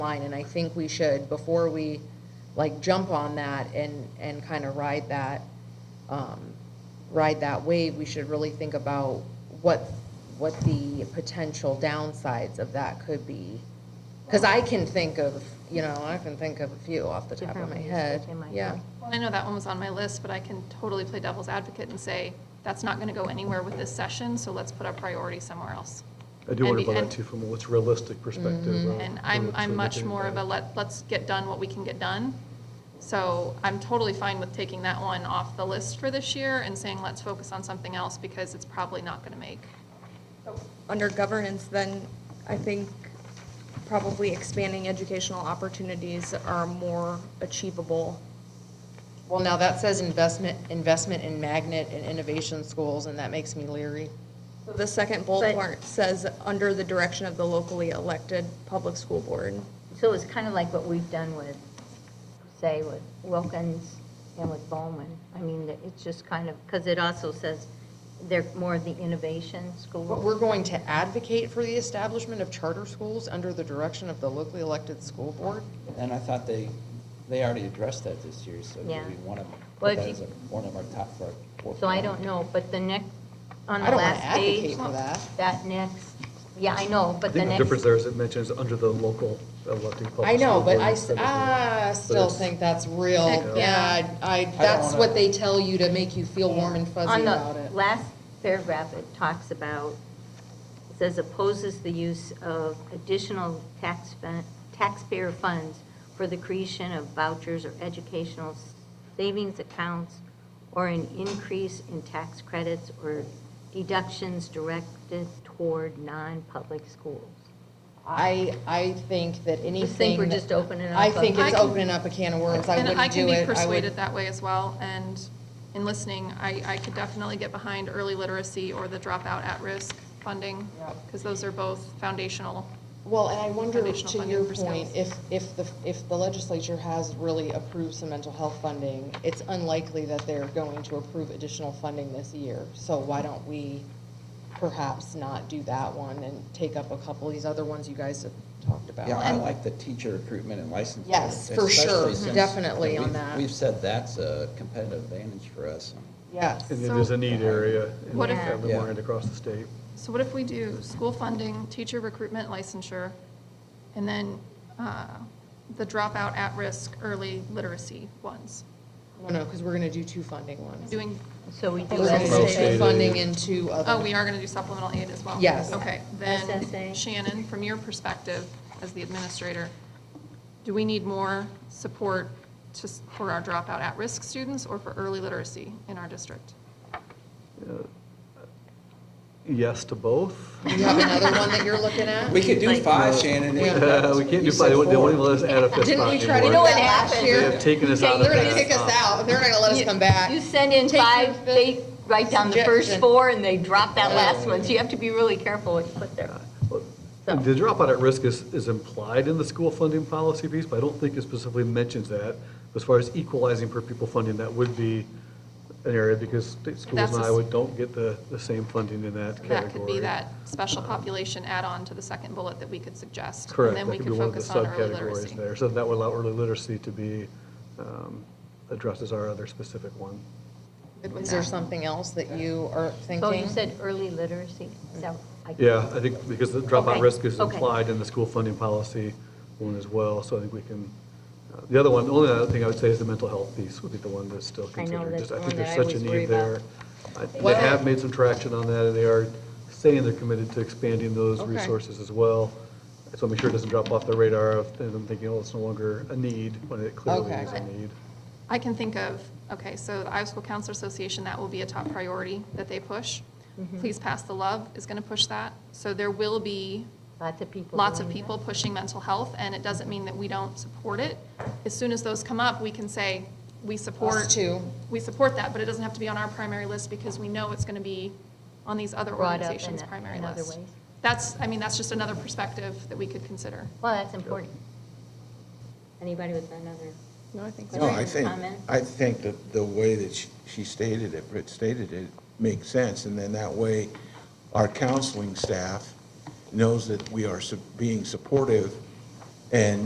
line, and I think we should, before we, like, jump on that and, and kind of ride that, um, ride that wave, we should really think about what, what the potential downsides of that could be. Because I can think of, you know, I can think of a few off the top of Different my ways that head, they might yeah. work. Well, I know that one was on my list, but I can totally play devil's advocate and say, that's not going to go anywhere with this session, so let's put our priority somewhere else. I do And wonder be- about that and- Mm-hmm. too, from a what's realistic perspective. uh, And I'm, from- I'm from much looking more of a, at- let, let's get done what we can get done. So I'm totally fine with taking that one off the list for this year and saying, let's focus on something else because it's probably not going to make. Under governance, then, I think probably expanding educational opportunities are more achievable. Well, now that says investment, investment in magnet and innovation schools, and that makes me leery. So The second But- bullet point says, under the direction of the locally elected public school board. So it's kind of like what we've done with, say, with Wilkins and with Bowman. I mean, that it's just kind of, because it also says they're more of the innovation But school. We're going to advocate for the establishment of charter schools under the direction of the locally elected school board? And I thought they, they already addressed that this year, so do Yeah. we want to Well, put if that you- as a- one of our top four. four So I don't priorities? know, but the next, on I the don't wanna last page. advocate for that. next, yeah, I know, but I the think the next. difference there is it mentions under the local elected public. I know, school but board I, s- instead of the- ah, still it's- think that's real. Heck, Yeah, yeah. I, I- that's wanna- what they tell you to make you feel warm and fuzzy about On it. the last paragraph, it talks about, it says opposes the use of additional tax, fun- taxpayer funds for the creation of vouchers or educational savings accounts or an increase in tax credits or deductions directed toward non-public schools. I, I think that anything. Just think we're that- just opening up. I think a- it's I can- opening up a can of worms. I And I wouldn't do can be it. I persuaded would, that way as well, and in listening, I, I could definitely get behind early literacy or the dropout at-risk funding, because those are both foundational. well, and I wonder, Foundational to funding your for point, skills. if, if the, if the legislature has really approved some mental health funding, it's unlikely that they're going to approve additional funding this year. So why don't we perhaps not do that one and take up a couple of these other ones you guys have talked about? Yeah, I like the teacher recruitment and licensing. Yes, for sure, especially since definitely on we've- that. We've said that's a competitive advantage for us. Yes. And it is a need area in What if- every Yeah. market across the state. So what if we do school funding, teacher recruitment licensure, and then uh, the dropout at-risk early literacy ones? No, no, because we're going to do two funding ones. Doing, So we do We're going Well, to do SSA. two stated. funding and two other. oh, we are going to do supplemental aid as well? Yes. Okay, SSA. then Shannon, from your perspective as the administrator, do we need more support to, s- for our dropout at-risk students or for early literacy in our district? Yes to both. You have another one that you're looking at? We could do five, Shannon. if Yeah. that's- We can't do you five, they said wouldn't they four. wouldn't let us add a fifth Didn't we spot try to do know anymore. what that last happened? They year? have taken us Yeah, out of They're that. going to kick us out. They're not going to let us come back. You send in Take your five, fifth- they write down the first suggestion. four, and they drop that last one, so you have to be really careful what you put there. So- The dropout at risk is, is implied in the school funding policy piece, but I don't think it specifically mentions that. As far as equalizing per pupil funding, that would be an area because state schools That's a in s- Iowa don't get the, the same funding in that category. That could be that special population add-on to the second bullet that we could suggest. Correct. And then that we could could be one of the focus on early subcategories literacy. there. So that would allow early literacy to be um, addressed as our other specific one. Is there something else that you are thinking? So you said early literacy, so I. Yeah, I think because the dropout Okay, risk is okay. implied in the school funding policy one as well, so I think we can, uh, the other one, the only other thing I would say is the mental health piece would be the one that's still I know, considered. that's Just the think one that there's I such a always worry need about. there. I- They Well- have made some traction on that, and they are saying they're committed to expanding those Okay. resources as well. So make sure it doesn't drop off the radar of them thinking, oh, it's no longer a need, when it clearly Okay. is a need. I can think of, okay, so the Iowa School Counselor Association, that will be a top priority that they push. Mm-hmm. Please Pass the Love is going to push that. So there will be Lots of people. lots of doing that. people pushing mental health, and it doesn't mean that we don't support it. As soon as those come up, we can say, we support. too. We support that, but it doesn't have to be on our primary list because we know it's going to be on these other Brought up organizations' in- primary in other list. ways. That's, I mean, that's just another perspective that we could consider. Well, that's important. Anybody with another? No, I think No, I think, Comment? I think that the way that she- she stated it, Britt stated it, makes sense. And then that way, our counseling staff knows that we are su- being supportive and